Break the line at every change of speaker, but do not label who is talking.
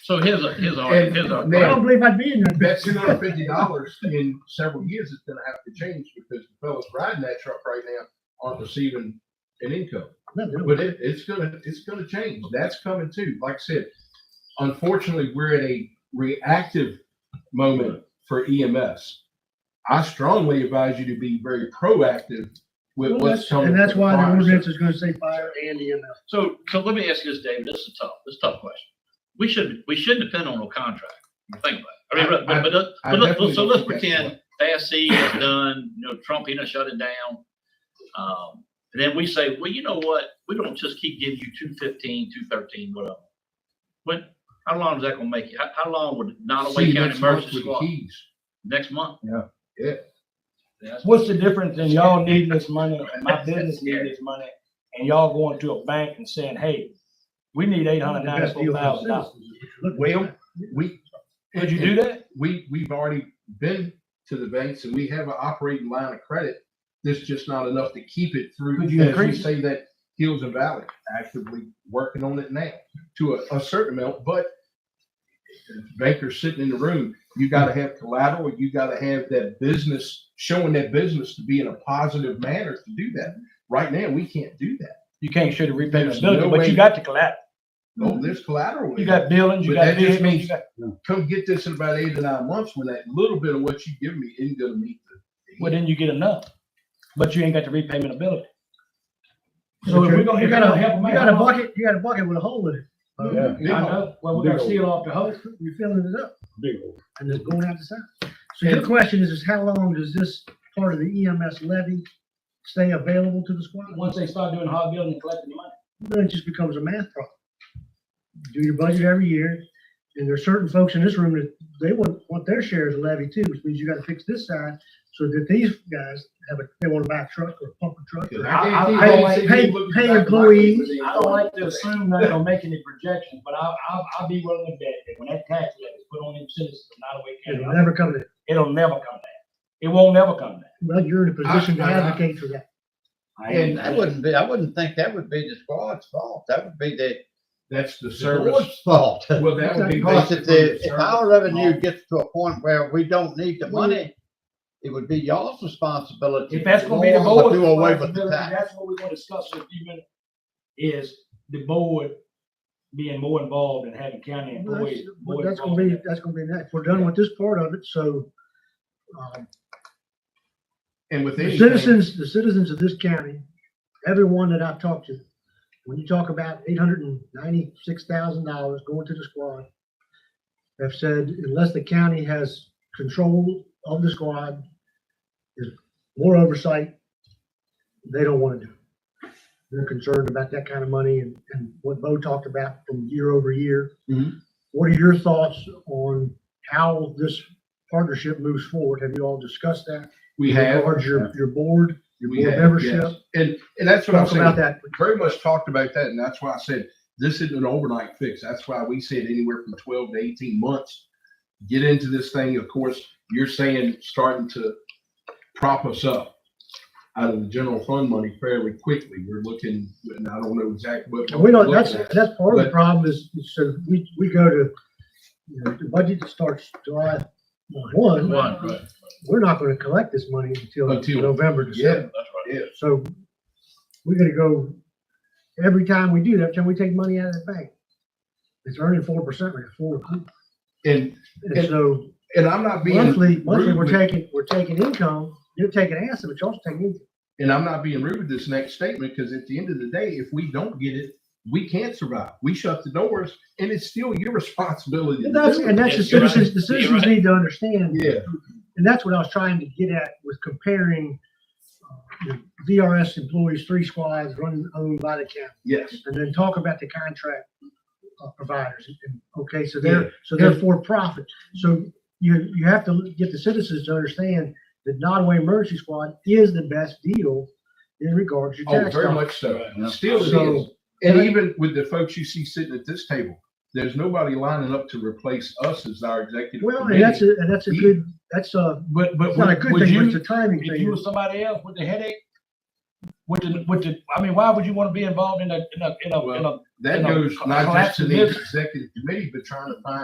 So here's a, here's a,
And
here's a.
now-
I don't believe I'd be in there.
That two hundred fifty dollars in several years is gonna have to change because the fellas riding that truck right now aren't receiving an income. But it, it's gonna, it's gonna change. That's coming too. Like I said, unfortunately, we're at a reactive moment for EMS. I strongly advise you to be very proactive with
Well,
what's
that's-
coming.
And that's
from
why the
fire.
ordinance is gonna say fire and EMS.
So, so let me ask you this, David, this is tough, this is a tough question. We should, we shouldn't depend on a contract, think about it. I mean, but, but, but,
I- I
but
definitely
let's- so let's
think that's
pretend FASC is done, you know, Trump, he done shut it down. Um, and then we say, well, you know what, we don't just keep giving you two fifteen, two thirteen, whatever. When, how long is that gonna make you? How, how long would
See
Nottaway
you
County
next month
Emergency
with the
Squad?
keys.
Next month?
Yeah. Yeah.
That's-
What's the difference in y'all needing this money and my business needing this money and y'all going to a bank and saying, hey, we need eight hundred ninety-four thousand dollars?
Well, we.
Would you do that?
we, we've already been to the banks and we have an operating line of credit. There's just not enough to keep it through,
Could you
as we
increase it?
say that Hills and Valley actively working on it now to a, a certain amount, but bankers sitting in the room, you gotta have collateral, you gotta have that business, showing that business to be in a positive manner to do that. Right now, we can't do that.
You can't shoot a repayment
There's no
ability, but
way-
you got the collateral.
No, Oh, there's collateral.
Mm-hmm. You got buildings, you
But
got
that just
vehicles.
means-
you got-
Come get this in about eight to nine months when that little bit of what you give me isn't gonna meet the.
Well, then you get enough, but you ain't got the repayment ability. So
So
if
you
we're gonna,
got a,
if we're gonna help them
you got a
out.
bucket, you got a bucket with a hole in it.
Yeah.
I know, well, we're gonna
Big
seal off the hole.
You're filling it up
big old.
and it's going out the side. So your
And-
question is, is how long does this part of the EMS levy stay available to the squad?
Once they start doing hard building and collecting the money.
Then it just becomes a math problem. Do your budget every year, and there's certain folks in this room that they want, want their shares levied too, which means you gotta fix this side so that these guys have a, they wanna buy a truck or pump a truck. or-
I- I-
I
I-
guarantee
pay-
you look
pay
back at my
employees.
papers and
I don't like to
you'll-
assume they're gonna make any projections, but I, I, I'll be willing to bet that when that tax levy is put on them citizens of Nottaway
It'll
County,
never come to,
it'll never come down. It won't never come down.
well, you're in a position to
I- I- I-
advocate for that.
And that wouldn't be, I wouldn't think that would be the squad's fault. That would be the
That's the service.
board's fault.
Well, that would be.
Because
based
if
upon
the,
the
if
service.
our revenue gets to a point where we don't need the money, it would be y'all's responsibility.
If that's gonna be the
to
board's
Do away with the
responsibility,
tax.
That's what we're gonna discuss in a few minutes, is the board being more involved and having county
Well, That's
employees.
well,
more
that's gonna
involved.
be, that's gonna be next. We're done with this part of it, so, um,
And with
The
anything,
citizens, the citizens of this county, everyone that I've talked to, when you talk about eight hundred and ninety-six thousand dollars going to the squad, have said unless the county has control of the squad, is more oversight, they don't want to do. it. They're concerned about that kind of money and, and what Bo talked about from year over year.
Mhm.
What are your thoughts on how this partnership moves forward? Have you all discussed that?
We have,
Or your, your board, your
we
board
have, yes.
membership,
And, and that's what I'm
talk about
saying.
that.
Very much talked about that and that's why I said, this isn't an overnight fix. That's why we said anywhere from twelve to eighteen months. Get into this thing. Of course, you're saying starting to prop us up out of the general fund money fairly quickly. We're looking, and I don't know exactly what.
And we don't,
we're
that's,
looking at.
that's part of the
But-
problem is, is so we, we go to, you know, the budget that starts July one,
One, right, that's
we're not gonna collect this money until
Until-
November,
Yeah,
December.
right.
yeah.
So we're gonna go, every time we do that, every time we take money out of the bank, it's earning four percent, like four.
And,
And so
and I'm not being.
monthly, monthly,
rude,
we're
but-
taking, we're taking income, you're taking asset, but you're also taking income.
and I'm not being rude with this next statement because at the end of the day, if we don't get it, we can't survive. We shut the doors, and it's still your responsibility. to
And that's,
do it.
and that's the
Yes, you're right.
citizens, the
You're
citizens
right.
need to understand.
Yeah.
And that's what I was trying to get at with comparing uh, you know, VRS employees, three squads run owned by the county.
Yes.
And then talk about the contract uh, providers. And- Okay, so
Yeah.
they're, so they're for profit. So you, you have to get the citizens to understand that Nottaway Emergency Squad is the best deal in regards to
Oh,
tax.
very
dollars.
much so. Still it is.
So-
And even with the folks you see sitting at this table, there's nobody lining up to replace us as our executive.
Well, and that's,
committee.
a and that's a good, that's a,
But, but
it's not a good
would
thing, but
you-
it's a timing
If you were
thing.
somebody else with the headache, with the, with the, I mean, why would you want to be involved in a, in a, in a, in a
That
You know,
goes not just to the
collapse.
executive committee, but trying to find